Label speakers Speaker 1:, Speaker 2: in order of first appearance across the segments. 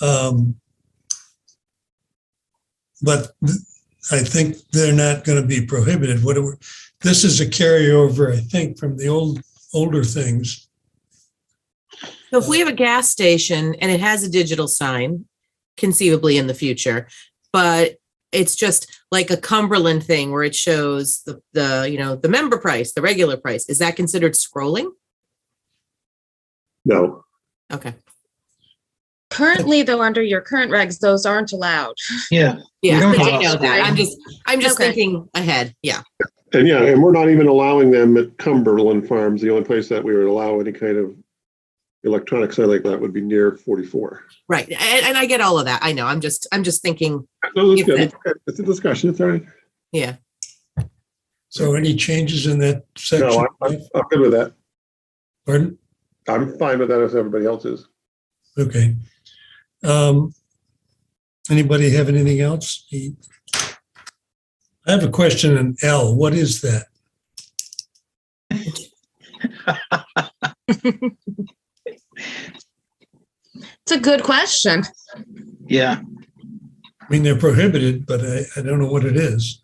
Speaker 1: Um, But I think they're not going to be prohibited. What, do we- this is a carryover, I think, from the old, older things.
Speaker 2: So if we have a gas station and it has a digital sign conceivably in the future, but it's just like a Cumberland thing where it shows the, the, you know, the member price, the regular price, is that considered scrolling?
Speaker 3: No,
Speaker 2: Okay.
Speaker 4: Currently, though, under your current regs, those aren't allowed.
Speaker 5: Yeah,
Speaker 2: Yeah,
Speaker 5: don't
Speaker 2: I
Speaker 5: have
Speaker 2: know that. I'm
Speaker 4: scrolling.
Speaker 2: just, I'm just
Speaker 4: Okay.
Speaker 2: thinking ahead. Yeah.
Speaker 3: and yeah, and we're not even allowing them at Cumberland Farms. The only place that we would allow any kind of electronic sign like that would be near 44.
Speaker 2: Right. And, and I get all of that. I know. I'm just, I'm just thinking,
Speaker 3: No, that's
Speaker 2: If
Speaker 3: good.
Speaker 2: it-
Speaker 3: Okay, It's a discussion. It's all right.
Speaker 2: yeah.
Speaker 1: So any changes in that
Speaker 3: No,
Speaker 1: section?
Speaker 3: I'm- I'm, I'm good with that.
Speaker 1: Pardon?
Speaker 3: I'm fine with that if everybody else is.
Speaker 1: Okay. Um, Anybody have anything else? The- I have a question in L. What is that?
Speaker 4: It's a good question.
Speaker 5: yeah.
Speaker 1: I mean, they're prohibited, but I, I don't know what it is.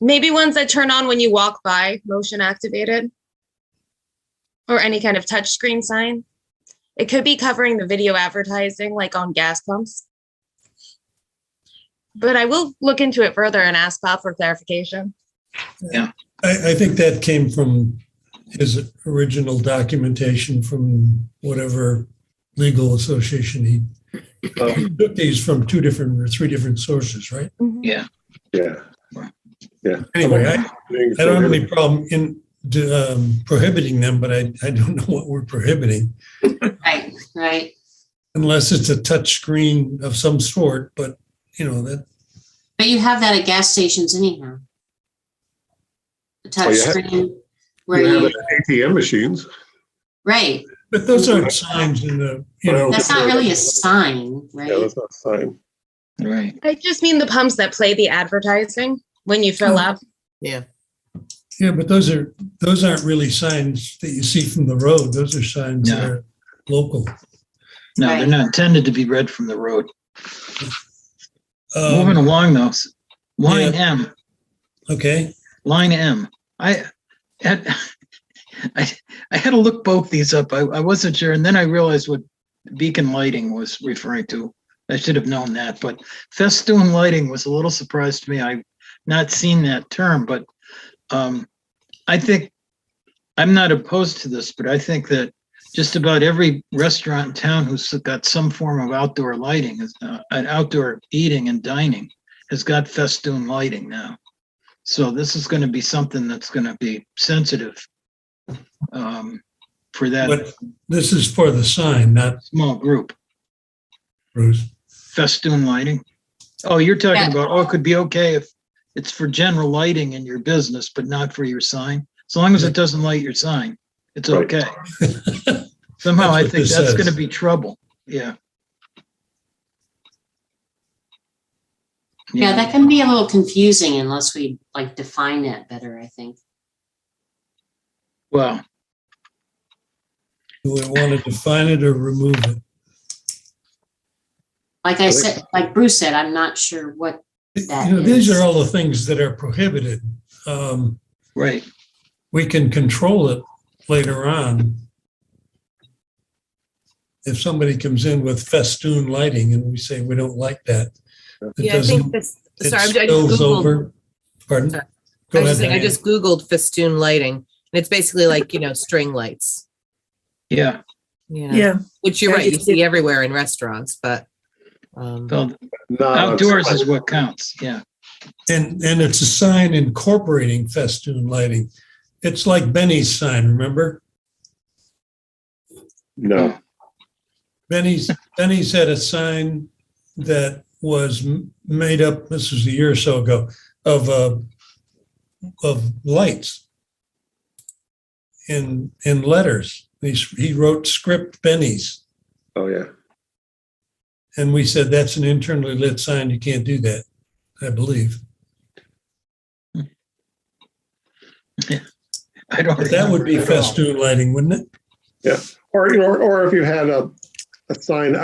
Speaker 4: Maybe ones that turn on when you walk by, motion activated, or any kind of touchscreen sign. It could be covering the video advertising, like on gas pumps. But I will look into it further and ask Bob for clarification.
Speaker 1: I, I think that came from his original documentation from whatever legal association he
Speaker 5: Oh.
Speaker 1: took these from two different or three different sources, right?
Speaker 2: Mm-hmm.
Speaker 3: Yeah.
Speaker 1: Anyway, I, I don't have any problem in um, prohibiting them, but I, I don't know what we're prohibiting
Speaker 6: Right, right.
Speaker 1: unless it's a touch screen of some sort, but you know, that,
Speaker 6: But you have that at gas stations anyhow. The
Speaker 3: Oh, you ha-
Speaker 6: touchscreen where
Speaker 3: You have
Speaker 6: you,
Speaker 3: it at ATM machines.
Speaker 6: right,
Speaker 1: but those aren't signs in the, you know,
Speaker 3: Well,
Speaker 6: that's not really a sign,
Speaker 3: Yeah,
Speaker 6: right?
Speaker 3: that's not a sign.
Speaker 5: Right.
Speaker 4: I just mean the pumps that play the advertising when you
Speaker 2: Oh,
Speaker 4: fill up.
Speaker 1: yeah, but those are, those aren't really signs that you see from the road. Those are signs that
Speaker 5: No.
Speaker 1: are local.
Speaker 5: No,
Speaker 6: Right.
Speaker 5: they're not intended to be read from the road.
Speaker 1: Um,
Speaker 5: Moving along though, s- line M,
Speaker 1: Okay.
Speaker 5: line M. I had, I, I had to look both these up. I, I wasn't sure. And then I realized what beacon lighting was referring to. I should have known that, but festoon lighting was a little surprise to me. I've not seen that term, but um, I think I'm not opposed to this, but I think that just about every restaurant in town who's got some form of outdoor lighting is uh, an outdoor eating and dining has got festoon lighting now. So this is going to be something that's going to be sensitive um, for that
Speaker 1: But this is for the sign, not
Speaker 5: small group.
Speaker 1: Bruce.
Speaker 5: festoon lighting? Oh, you're talking
Speaker 6: Yeah.
Speaker 5: about, oh, it could be okay if it's for general lighting in your business, but not for your sign. As long as it doesn't light your sign, it's
Speaker 3: Right.
Speaker 5: okay. Somehow
Speaker 1: That's what
Speaker 5: I think
Speaker 1: this
Speaker 5: that's
Speaker 1: says.
Speaker 5: gonna be trouble, yeah.
Speaker 6: Yeah, that can be a little confusing unless we like define that better, I think.
Speaker 5: Well,
Speaker 1: Do we want to define it or remove it?
Speaker 6: Like I said, like Bruce said, I'm not sure what, That
Speaker 1: You know, these
Speaker 6: is-
Speaker 1: are all the things that are prohibited. Um,
Speaker 5: right,
Speaker 1: We can control it later on. If somebody comes in with festoon lighting and we say, we don't like that. It
Speaker 2: Yeah, I
Speaker 1: doesn't,
Speaker 2: think this,
Speaker 1: it
Speaker 2: sorry, I just
Speaker 1: spills
Speaker 2: Googled
Speaker 1: over. Pardon?
Speaker 2: Sorry.
Speaker 1: Go
Speaker 2: I was
Speaker 1: ahead.
Speaker 2: just saying, I
Speaker 1: Diane.
Speaker 2: just Googled festoon lighting and it's basically like, you know, string lights.
Speaker 5: yeah.
Speaker 2: You know,
Speaker 7: Yeah,
Speaker 2: which you're
Speaker 7: Yeah,
Speaker 2: right, you
Speaker 7: it's-
Speaker 2: see everywhere in restaurants, but. um,
Speaker 5: well,
Speaker 1: Uh,
Speaker 3: Not on
Speaker 5: Outdoors
Speaker 3: sign.
Speaker 5: is what counts, yeah.
Speaker 1: And, and it's a sign incorporating festoon lighting. It's like Benny's sign, remember?
Speaker 3: No,
Speaker 1: Benny's, Benny's had a sign that was m- made up, this was a year or so ago, of, uh, of lights in, in letters. He, s- he wrote script Benny's.
Speaker 3: oh, yeah.
Speaker 1: And we said, that's an internally lit sign. You can't do that, I believe.
Speaker 5: I don't.
Speaker 1: But that would be
Speaker 5: remember at all.
Speaker 1: festoon lighting, wouldn't it?
Speaker 3: Or, you know, or if you had a, a sign